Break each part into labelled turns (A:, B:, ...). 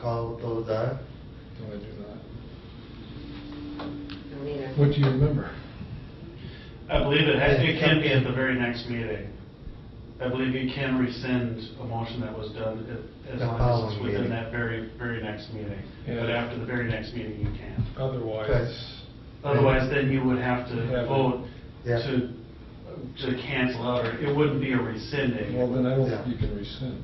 A: Call those aye?
B: No, I do
C: No, neither.
B: not. What do you remember?
D: I believe it has, it can be at the very next meeting. I believe you can rescind a motion that was done if- as
A: The
D: long as
A: following
D: it's within
A: meeting.
D: that very, very next meeting. But
B: Yeah.
D: after the very next meeting, you can't.
B: Otherwise,
D: Otherwise, then you would have
B: Yeah,
D: to
B: but-
D: vote
A: Yeah.
D: to, to cancel out, or it wouldn't be a rescinding.
B: well, then I don't think
A: Yeah.
B: you can rescind.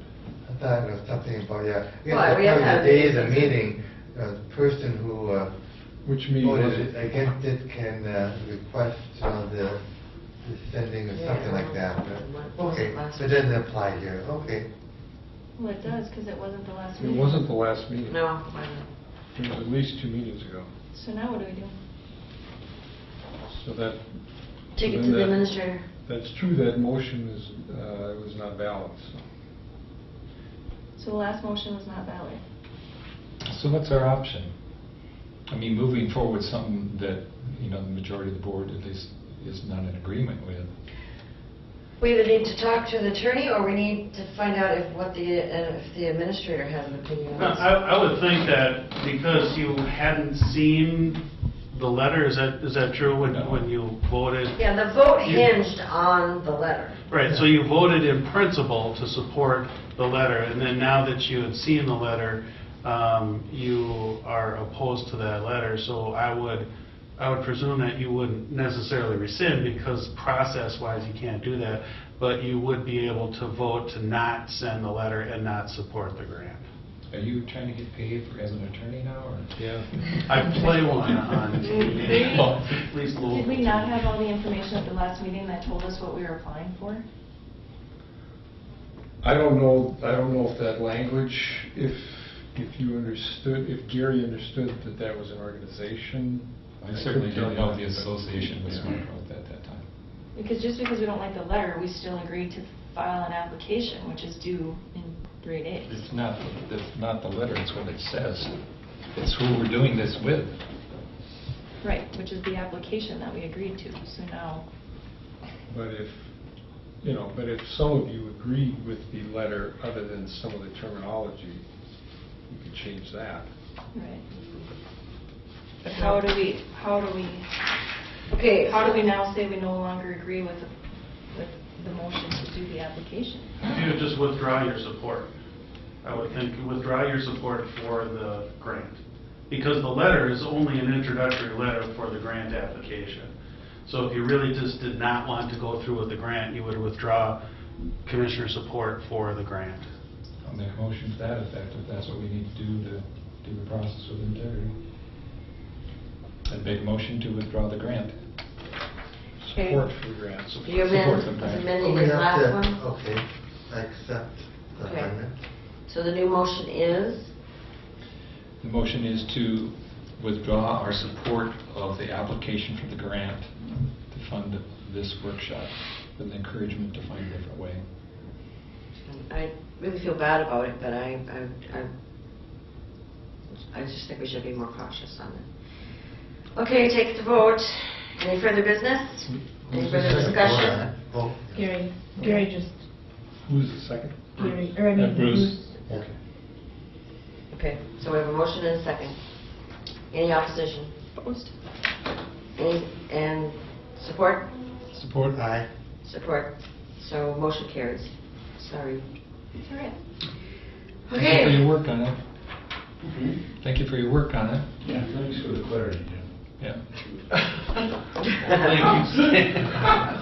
A: I thought it was something about, yeah.
C: Well, we have to have-
A: The day of the meeting, uh, the person who uh,
B: Which means
A: voted against it can uh, request uh, the rescinding or
C: Yeah,
A: something like that.
C: what- what was
A: Okay,
C: the last
A: so it doesn't apply here, okay.
E: Well, it does, because it wasn't the last
B: It
E: meeting.
B: wasn't the last meeting.
C: No, I
B: It was at least two meetings ago.
E: So now what do we do?
B: So that.
C: don't. Take
B: so
C: it
B: then
C: to the
B: that-
C: administrator.
B: That's true, that motion is, uh, was not valid, so.
E: So the last motion was not valid.
F: So what's our option? I mean, moving forward, something that, you know, the majority of the board at least is not in agreement with.
C: We either need to talk to the attorney, or we need to find out if what the, uh, if the administrator has an opinion on this.
D: I, I would think that because you hadn't seen the letter, is that, is that true when,
F: No.
D: when you voted?
C: Yeah, the vote
D: You-
C: hinged on the letter.
D: Right, so you voted in principle to support the letter, and then now that you had seen the letter, um, you are opposed to that letter, so I would, I would presume that you wouldn't necessarily rescind, because process-wise, you can't do that, but you would be able to vote to not send the letter and not support the grant.
F: Are you trying to get paid for as an attorney now, or?
B: Yeah.
D: I play one on TV,
F: Well,
D: at least local.
E: Did we not have all the information at the last meeting that told us what we were applying for?
B: I don't know, I don't know if that language, if, if you understood, if Gary understood that that was an organization.
F: I
B: couldn't
F: certainly
B: tell
F: didn't
B: you
F: know
B: that,
F: the
B: but-
F: association was
B: Yeah.
F: smart about that at that time.
E: Because just because we don't like the letter, we still agreed to file an application, which is due in three days.
F: It's not, it's not the letter, it's what it says. It's who we're doing this with.
E: Right, which is the application that we agreed to, so now,
B: But if, you know, but if some of you agreed with the letter, other than some of the terminology, you could change that.
E: right. But how do we, how do we,
C: Okay.
E: how do we now say we no longer agree with, the- with the motion to do the application?
D: You would just withdraw your support. I would think withdraw your support for the grant. Because the letter is only an introductory letter for the grant application. So if you really just did not want to go through with the grant, you would withdraw commissioner support for the grant.
F: I'll make a motion to that effect, if that's what we need to do to do the process with integrity. I'd make a motion to withdraw the grant.
C: Okay.
B: Support for grants.
C: You
F: Support
C: amend,
F: the
C: was
F: grant.
C: amending
A: We
C: this
A: have
C: last
A: to- oh.
C: one?
A: Okay, I accept the
C: Okay.
A: amendment.
C: So the new motion is,
F: The motion is to withdraw our support of the application for the grant to fund this workshop with an encouragement to find a different way.
C: I really feel bad about it, but I, I, I, I just think we should be more cautious on it. Okay, take the vote. Any further business? Any
A: Who's
C: further
A: the second?
C: discussion?
A: Vote.
G: Gary, Gary just,
B: Who's the second?
G: Gary, or I mean.
F: Uh, Bruce.
G: who's-
A: Okay.
C: Okay, so we have a motion and a second. Any opposition?
E: Opposed?
C: Any, and support?
F: Support?
A: Aye.
C: Support. So motion carries. Sorry.
E: It's all right.
F: Thank you for your
C: Okay.
F: work on it. Thank you for your work on it.
H: Yeah, thanks for the clarity, Jim.
F: Yeah.
H: Thank you.